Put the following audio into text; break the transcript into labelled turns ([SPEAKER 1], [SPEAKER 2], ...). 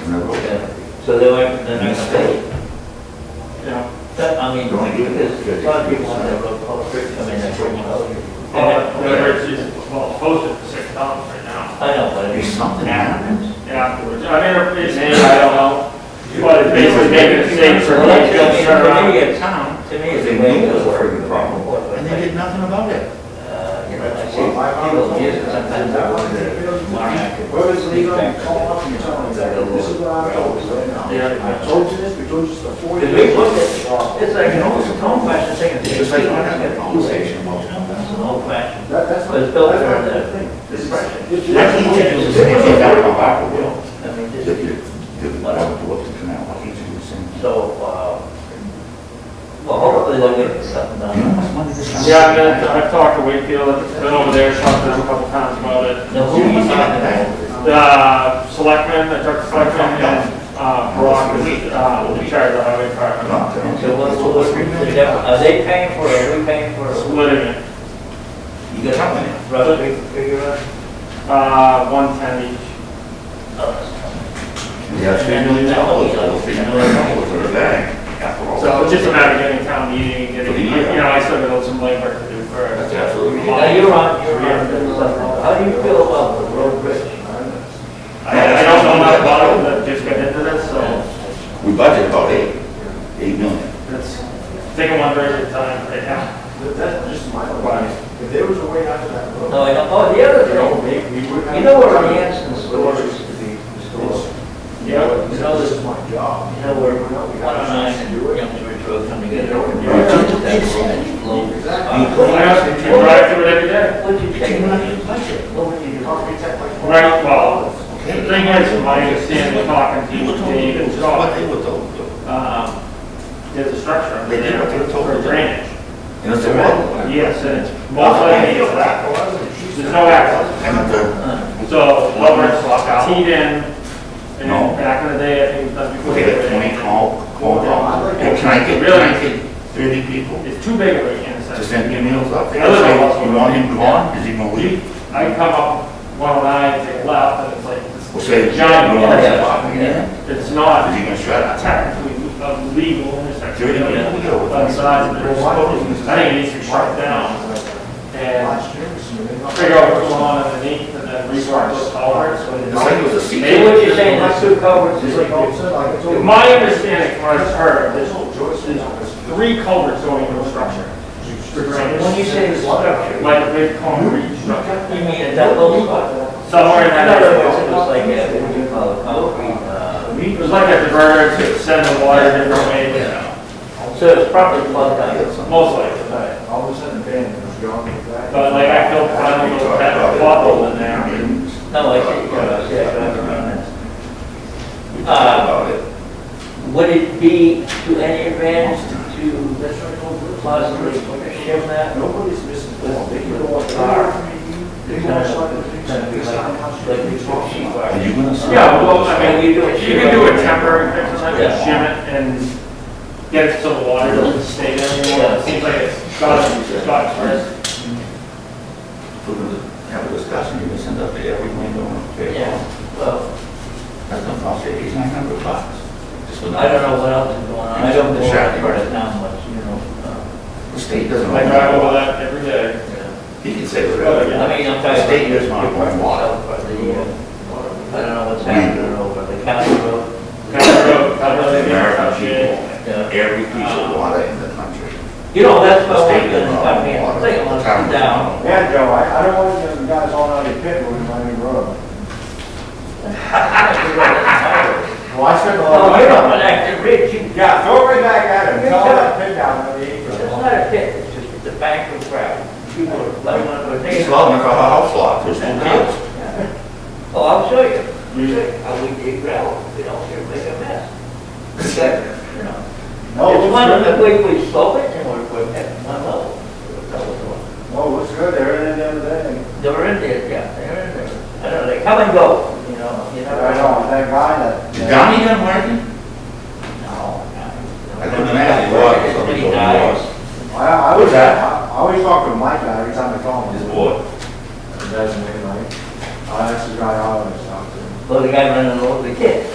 [SPEAKER 1] and they'll go
[SPEAKER 2] Yeah.
[SPEAKER 1] back.
[SPEAKER 2] So they weren't, they're not gonna pay.
[SPEAKER 3] Yeah.
[SPEAKER 2] That, I mean,
[SPEAKER 1] Don't do
[SPEAKER 2] because
[SPEAKER 1] it.
[SPEAKER 2] a lot of people want their road culvert, I mean, their bridge culvert.
[SPEAKER 3] Well, whether it's, just- well, posted for six dollars right now,
[SPEAKER 2] Oh, I know, but
[SPEAKER 1] If
[SPEAKER 2] it's
[SPEAKER 1] something happens,
[SPEAKER 3] and afterwards, I mean, it's, maybe, I don't know. But it's basically making a mistake for
[SPEAKER 2] Well,
[SPEAKER 3] me
[SPEAKER 2] that's-
[SPEAKER 3] to
[SPEAKER 2] I mean,
[SPEAKER 3] just turn
[SPEAKER 2] to me,
[SPEAKER 3] around.
[SPEAKER 2] it's, to me, it's
[SPEAKER 1] They
[SPEAKER 2] a way
[SPEAKER 1] knew
[SPEAKER 2] to
[SPEAKER 1] it was
[SPEAKER 2] work.
[SPEAKER 1] a problem, and they did nothing about it.
[SPEAKER 2] Uh, you know, I see people use it sometimes, I wonder, Mark, I could.
[SPEAKER 4] Where is legal, call up and tell them that, this is what I'm told, right now.
[SPEAKER 3] Yeah.
[SPEAKER 4] I told you this, we told you this before.
[SPEAKER 2] Because we looked at, it's like an old, it's an old fashioned thing.
[SPEAKER 1] It's just like, I had a conversation about something.
[SPEAKER 2] It's an old fashioned.
[SPEAKER 4] That, that's
[SPEAKER 2] But
[SPEAKER 4] what.
[SPEAKER 2] it's built
[SPEAKER 4] that's
[SPEAKER 2] for
[SPEAKER 4] what
[SPEAKER 2] the-
[SPEAKER 4] I think. This is-
[SPEAKER 2] depression.
[SPEAKER 4] this is-
[SPEAKER 1] I think it was, if you got a back of will,
[SPEAKER 2] I mean,
[SPEAKER 1] that
[SPEAKER 2] this
[SPEAKER 1] you,
[SPEAKER 2] is,
[SPEAKER 1] that you want to look to canal, I hate to do the same thing.
[SPEAKER 2] so, uh, well, hopefully they'll get something
[SPEAKER 1] You know how
[SPEAKER 2] done.
[SPEAKER 1] much money this costs?
[SPEAKER 3] Yeah, I've been, I've talked to Wakefield, been over there, talked to them a couple times about it.
[SPEAKER 2] Now, who are you talking about?
[SPEAKER 3] The uh, selectmen, I talked to selectmen, and, uh, Brock was, uh, in charge of the highway department.
[SPEAKER 1] Not that.
[SPEAKER 2] So what's, what's, the def- are they paying for it, are we paying for it?
[SPEAKER 3] Splitting it,
[SPEAKER 2] You got how many? Roughly figure out?
[SPEAKER 3] uh, one ten each.
[SPEAKER 2] Oh.
[SPEAKER 1] Yeah, it's been really tough, it's like, it's been really tough for the bank, after all.
[SPEAKER 3] So it's just a matter of getting town meeting, and getting, you know, I still got some labor to do for.
[SPEAKER 1] That's absolutely-
[SPEAKER 2] Now, you're on, you're on, the subject. how do you feel about the road bridge?
[SPEAKER 3] I, I don't know enough about it, but just got into this, so
[SPEAKER 1] We budget about eight, eight million.
[SPEAKER 3] it's taking one bridge at a time right now.
[SPEAKER 4] That- That's just my advice. If there was a way out of that road,
[SPEAKER 2] No, I don't, oh, the other
[SPEAKER 4] you know,
[SPEAKER 2] thing,
[SPEAKER 4] maybe we would. have-
[SPEAKER 2] you know where Hanson store used to be, the store?
[SPEAKER 4] You know, you know, this is my job.
[SPEAKER 2] You know where, one oh nine and Young Church Road come together. That low-
[SPEAKER 4] Exactly.
[SPEAKER 3] I have to drive through it every day.
[SPEAKER 2] What did you take? What would you do?
[SPEAKER 4] Architect like-
[SPEAKER 3] Right, well, the thing is, my understanding, talking to you, Dave and
[SPEAKER 1] What
[SPEAKER 3] Josh,
[SPEAKER 1] they were told, though.
[SPEAKER 3] um, there's a structure under
[SPEAKER 1] They did what they
[SPEAKER 3] there
[SPEAKER 1] were told to
[SPEAKER 3] for
[SPEAKER 1] do.
[SPEAKER 3] drainage.
[SPEAKER 1] And it's a lot.
[SPEAKER 3] Yes, and it's mostly, there's no access.
[SPEAKER 1] And uh, it's a-
[SPEAKER 3] So, over it's teed in,
[SPEAKER 1] No.
[SPEAKER 3] and back in the day, I think it was done before.
[SPEAKER 1] we had twenty call, call down, and can I get, can I get thirty people
[SPEAKER 3] It's too big of an intersection.
[SPEAKER 1] to send emails up there?
[SPEAKER 3] I live in
[SPEAKER 1] Say,
[SPEAKER 3] Boston.
[SPEAKER 1] you want him gone, is he gonna leave?
[SPEAKER 3] I can come up one oh nine, take a left, and it's like,
[SPEAKER 1] We'll
[SPEAKER 3] it's
[SPEAKER 1] say,
[SPEAKER 3] a
[SPEAKER 1] John, you want to
[SPEAKER 3] giant,
[SPEAKER 1] stop again?
[SPEAKER 3] it's
[SPEAKER 1] Is
[SPEAKER 3] not
[SPEAKER 1] he gonna shut up?
[SPEAKER 3] technically a legal intersection.
[SPEAKER 1] Thirty people, we go.
[SPEAKER 3] But size, there's, I think it needs to be shut down, and
[SPEAKER 4] Last year, so they-
[SPEAKER 3] figure out what's going on underneath, and then rework those culverts.
[SPEAKER 1] It's like it was a secret.
[SPEAKER 2] Hey, what you saying, that's two culverts,
[SPEAKER 4] It's
[SPEAKER 2] is
[SPEAKER 4] like
[SPEAKER 2] like,
[SPEAKER 4] I said, like I told you.
[SPEAKER 3] My understanding from what I've heard,
[SPEAKER 4] I
[SPEAKER 3] there's
[SPEAKER 4] told Joyce, you know, it's-
[SPEAKER 3] three culverts going into a structure,
[SPEAKER 2] when you say structure,
[SPEAKER 3] like a big concrete structure.
[SPEAKER 2] you mean a double spot?
[SPEAKER 3] Somewhere in
[SPEAKER 2] In other words,
[SPEAKER 3] that,
[SPEAKER 2] it was like, a- what do you call it, concrete, uh,
[SPEAKER 3] it was like a diverter to send the water a different way,
[SPEAKER 2] so it's probably plugged out.
[SPEAKER 3] most likely.
[SPEAKER 4] Right, all of a sudden, bam, it was gone with that.
[SPEAKER 3] But like, I feel kind of a little bit of a bubble in there.
[SPEAKER 2] No, I see, yeah, I see, I remember
[SPEAKER 1] We talked about
[SPEAKER 2] Uh,
[SPEAKER 1] it.
[SPEAKER 2] that. Would it be to any advantage to possibly shim that?
[SPEAKER 4] Nobody's missing, they can go up
[SPEAKER 2] Car.
[SPEAKER 4] there. They can watch like the
[SPEAKER 2] Kind
[SPEAKER 4] things that
[SPEAKER 2] of
[SPEAKER 4] they
[SPEAKER 2] like,
[SPEAKER 4] sound
[SPEAKER 2] like
[SPEAKER 4] constantly
[SPEAKER 2] the
[SPEAKER 4] talking
[SPEAKER 2] sheet
[SPEAKER 4] about.
[SPEAKER 2] rock.
[SPEAKER 1] Are you gonna stop?
[SPEAKER 3] Yeah, well, I mean, you can do a temporary fix, like a shim it and get it so the water doesn't stay there anymore. It seems like it's got, it's got first.
[SPEAKER 1] We're gonna have a discussion, you're gonna send up to every window and pay
[SPEAKER 2] Yeah, well.
[SPEAKER 1] That's no cost, eight, nine hundred bucks. Just
[SPEAKER 2] I don't know what else is going on, I don't go
[SPEAKER 1] Exactly.
[SPEAKER 2] over it now much, you know. uh,
[SPEAKER 1] The state doesn't.
[SPEAKER 3] I drive over that every day.
[SPEAKER 2] yeah.
[SPEAKER 1] He can say whatever.
[SPEAKER 2] I mean, I'm
[SPEAKER 1] The
[SPEAKER 2] tired.
[SPEAKER 1] state is not going water.
[SPEAKER 2] I don't know what's happening over the county road,
[SPEAKER 3] County road, county road,
[SPEAKER 1] American
[SPEAKER 3] county road.
[SPEAKER 1] people, every piece of water in the country.
[SPEAKER 2] you know, that's
[SPEAKER 1] The
[SPEAKER 2] what
[SPEAKER 1] state
[SPEAKER 2] I'm
[SPEAKER 1] does
[SPEAKER 2] gonna, I
[SPEAKER 1] not
[SPEAKER 2] mean,
[SPEAKER 1] want
[SPEAKER 2] I'm
[SPEAKER 1] water.
[SPEAKER 2] thinking, let's come down.
[SPEAKER 4] Yeah, Joe, I, I don't want to get the guys all out of your pit moving my new road. Well, I spent a lot of
[SPEAKER 2] Oh,
[SPEAKER 4] money
[SPEAKER 2] you know,
[SPEAKER 4] on
[SPEAKER 2] but
[SPEAKER 4] it.
[SPEAKER 2] actually, Rich, you-
[SPEAKER 4] Yeah, throw it right back at him, tell him that pit down on the
[SPEAKER 2] it's
[SPEAKER 4] acre.
[SPEAKER 2] not a pit, it's just it's a bank of gravel. People are letting one of
[SPEAKER 1] He's
[SPEAKER 2] their
[SPEAKER 1] loving for a house lot, there's no kids.
[SPEAKER 2] Oh, I'll show you, I'll show you how we dig gravel, we don't here make a mess. It's like, you know,
[SPEAKER 4] No, it
[SPEAKER 2] It's one of
[SPEAKER 4] looks
[SPEAKER 2] the
[SPEAKER 4] good.
[SPEAKER 2] way we slope it and we're, we're at one level. That was the one.
[SPEAKER 4] No, it looks good, they were in there the other day.
[SPEAKER 2] They were in there, yeah, they were in there. I don't know, they come and go, you know, you never
[SPEAKER 4] I
[SPEAKER 2] know.
[SPEAKER 4] know, that guy that.
[SPEAKER 1] Is Donnie done working?
[SPEAKER 2] No, no.
[SPEAKER 1] I couldn't imagine why, because somebody told me why.
[SPEAKER 4] I,
[SPEAKER 1] What's
[SPEAKER 4] I always,
[SPEAKER 1] that?
[SPEAKER 4] I always talk to Mike guy every time I call him.
[SPEAKER 1] His boy.
[SPEAKER 4] It doesn't mean like, oh, that's the guy I always talk to.
[SPEAKER 2] Well, the guy running over the kid.